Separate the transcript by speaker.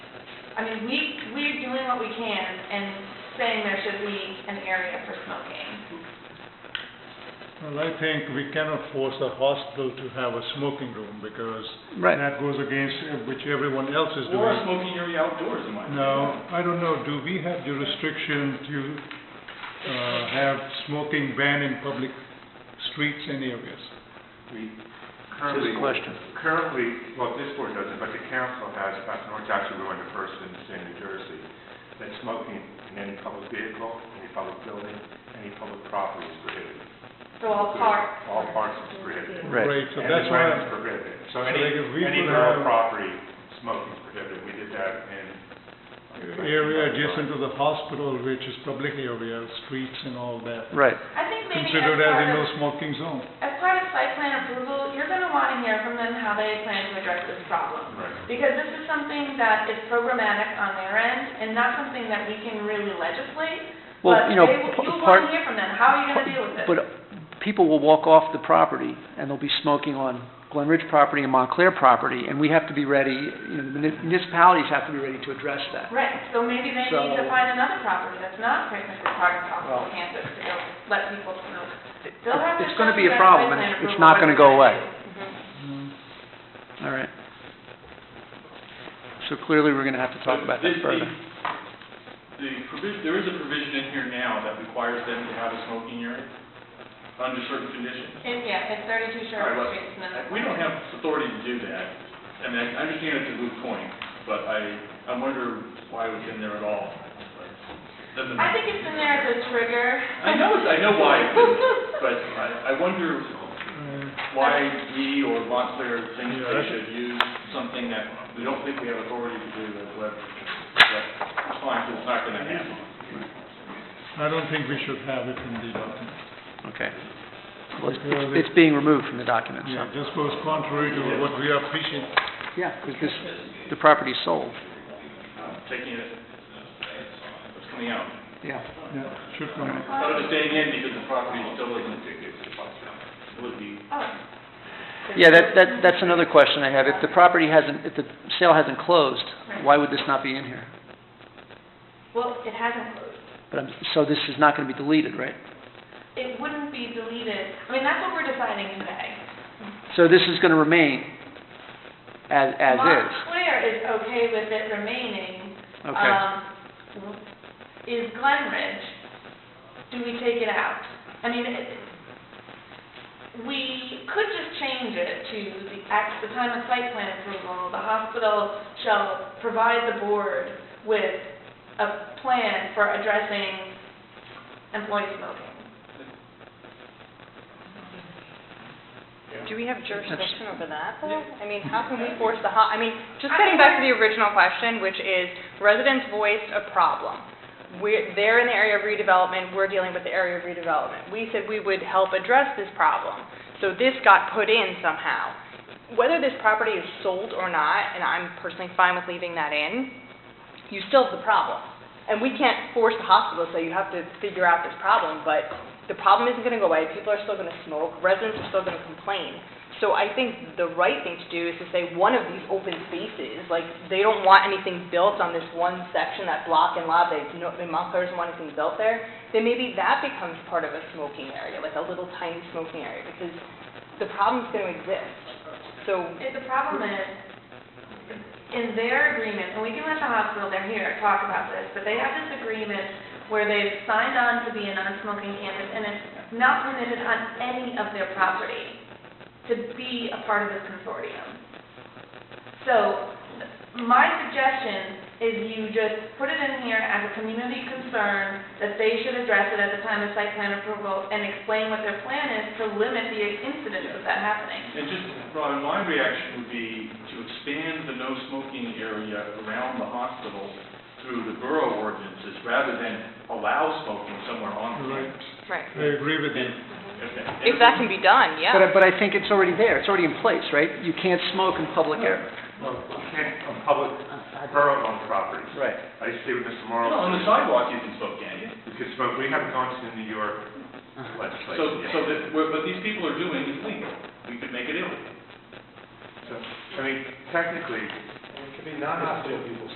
Speaker 1: I mean, we, we're doing what we can and saying there should be an area for smoking.
Speaker 2: Well, I think we cannot force a hospital to have a smoking room because
Speaker 3: Right.
Speaker 2: that goes against uh, which everyone else is
Speaker 4: Or a
Speaker 2: doing.
Speaker 4: smoking area outdoors, in my opinion.
Speaker 2: No, I don't know, do we have jurisdiction to, uh, have smoking ban in public streets and areas?
Speaker 5: We
Speaker 3: Good
Speaker 5: currently,
Speaker 3: question.
Speaker 5: currently, well, this board doesn't, but the council has, uh, back in Orange, actually, we were the first in the state of New Jersey, that smoking in any public vehicle, any public building, any public property is prohibited.
Speaker 1: So all parks.
Speaker 5: All parks is prohibited.
Speaker 3: Right.
Speaker 2: Right, so
Speaker 5: And
Speaker 2: that's
Speaker 5: the
Speaker 2: why,
Speaker 5: brand is prohibited. So
Speaker 2: So
Speaker 5: any,
Speaker 2: like if we
Speaker 5: any
Speaker 2: could
Speaker 5: rural
Speaker 2: have-
Speaker 5: property, smoking is prohibited. We did that in.
Speaker 2: area adjacent to the hospital, which is public area, streets and all that,
Speaker 3: Right.
Speaker 1: I think maybe as
Speaker 2: considered as a
Speaker 1: part
Speaker 2: no
Speaker 1: of,
Speaker 2: smoking zone.
Speaker 1: as part of site plan approval, you're gonna wanna hear from them how they plan to address this problem.
Speaker 5: Right.
Speaker 1: Because this is something that is programmatic on their end and not something that we can really legislate.
Speaker 3: Well, you know,
Speaker 1: But
Speaker 3: p-
Speaker 1: they, will- you'll
Speaker 3: part,
Speaker 1: wanna hear from them, how are you gonna deal with this?
Speaker 3: but people will walk off the property and they'll be smoking on Glen Ridge property and Montclair property, and we have to be ready, you know, the muni- municipalities have to be ready to address that.
Speaker 1: Right, so maybe they need to
Speaker 3: So-
Speaker 1: find another property that's not technically part of hospital campus to go let people smoke. They'll have to
Speaker 3: It's gonna
Speaker 1: show
Speaker 3: be
Speaker 1: you
Speaker 3: a
Speaker 1: guys
Speaker 3: problem, and
Speaker 1: site plan
Speaker 3: it's not
Speaker 1: approval
Speaker 3: gonna go
Speaker 1: whether
Speaker 3: away.
Speaker 1: they- Mm-hmm.
Speaker 3: All right. So clearly, we're gonna have to talk about that
Speaker 4: This- the-
Speaker 3: further.
Speaker 4: The provision, there is a provision in here now that requires them to have a smoking area under certain conditions.
Speaker 1: It- Yeah, it's thirty-two
Speaker 4: All right,
Speaker 1: Sherwood
Speaker 4: well,
Speaker 1: Street, it's another.
Speaker 4: We don't have authority to do that. I mean, I understand it's a moot point, but I, I wonder why it's in there at all. Doesn't-
Speaker 1: I think it's in there as a trigger.
Speaker 4: I know, I know why, it's in there, but I, I wonder
Speaker 2: Uh,
Speaker 4: why we or Montclair thinks
Speaker 2: Yeah,
Speaker 4: they
Speaker 2: that's-
Speaker 4: should use something that we don't think we have authority to do as web, but it's fine, 'cause it's not gonna happen.
Speaker 2: I don't think we should have it in the document.
Speaker 3: Okay. Well, it's-
Speaker 2: Because
Speaker 3: it's, it's being removed from the document,
Speaker 2: Yeah,
Speaker 3: so,
Speaker 2: this goes contrary to what we are preaching.
Speaker 3: yeah, because this, the property's sold,
Speaker 4: Uh, Taking it, it's coming out.
Speaker 3: yeah.
Speaker 2: Yeah, should come in.
Speaker 4: But it's staying in because the property still isn't, it would be
Speaker 1: Oh.
Speaker 3: Yeah, that, that, that's another question I have. If the property hasn't, if the sale hasn't closed, why would this not be in here?
Speaker 1: Well, it hasn't closed.
Speaker 3: But I'm, so this is not gonna be deleted, right?
Speaker 1: It wouldn't be deleted. I mean, that's what we're deciding today.
Speaker 3: So this is gonna remain as, as is,
Speaker 1: Montclair is okay with it remaining.
Speaker 3: okay?
Speaker 1: Um, Is Glen Ridge, do we take it out? I mean, it- we could just change it to the, at the time of site plan approval, the hospital shall provide the board with a plan for addressing employee smoking.
Speaker 6: Do we have jurisdiction over that, though?
Speaker 4: Yeah.
Speaker 6: I mean, how can we force the ho, I mean, just getting back to the original question, which is, residents voiced a problem. We're, they're in the area of redevelopment, we're dealing with the area of redevelopment. We said we would help address this problem, so this got put in somehow. Whether this property is sold or not, and I'm personally fine with leaving that in, you still have the problem. And we can't force the hospital, to say you have to figure out this problem, but the problem isn't gonna go away, people are still gonna smoke, residents are still gonna complain. So I think the right thing to do is to say, one of these open spaces, like, they don't want anything built on this one section, that block and lot, they, no, the Montclair doesn't want anything built there, then maybe that becomes part of a smoking area, like a little tiny smoking area, because the problem's gonna exist. So,
Speaker 1: If the problem is, in their agreement, and we can let the hospital, they're here, talk about this, but they have this agreement where they've signed on to be a non-smoking campus, and it's not permitted on any of their property to be a part of this consortium. So, my suggestion is you just put it in here as a community concern, that they should address it at the time of site plan approval, and explain what their plan is to limit the incidence of that happening.
Speaker 4: And just, Robin, my reaction would be to expand the no smoking area around the hospital through the borough ordinances rather than allow smoking somewhere on the
Speaker 2: Right,
Speaker 4: campus.
Speaker 6: right,
Speaker 2: I agree with you.
Speaker 4: And- and-
Speaker 6: if that can be done, yeah.
Speaker 3: But, I- but I think it's already there, it's already in place, right? You can't smoke in public air.
Speaker 5: Well, you can't, on public, borough-owned properties.
Speaker 3: Right.
Speaker 5: I used to see what Mr.
Speaker 4: No,
Speaker 5: Morrow.
Speaker 4: on the sidewalk you can smoke, can't you?
Speaker 5: You could smoke, we haven't gone to the New York
Speaker 4: So,
Speaker 5: legislation yet.
Speaker 4: so that, what what these people are doing is legal. We could make it illegal.
Speaker 5: So, I mean, technically. It could be non-hospital people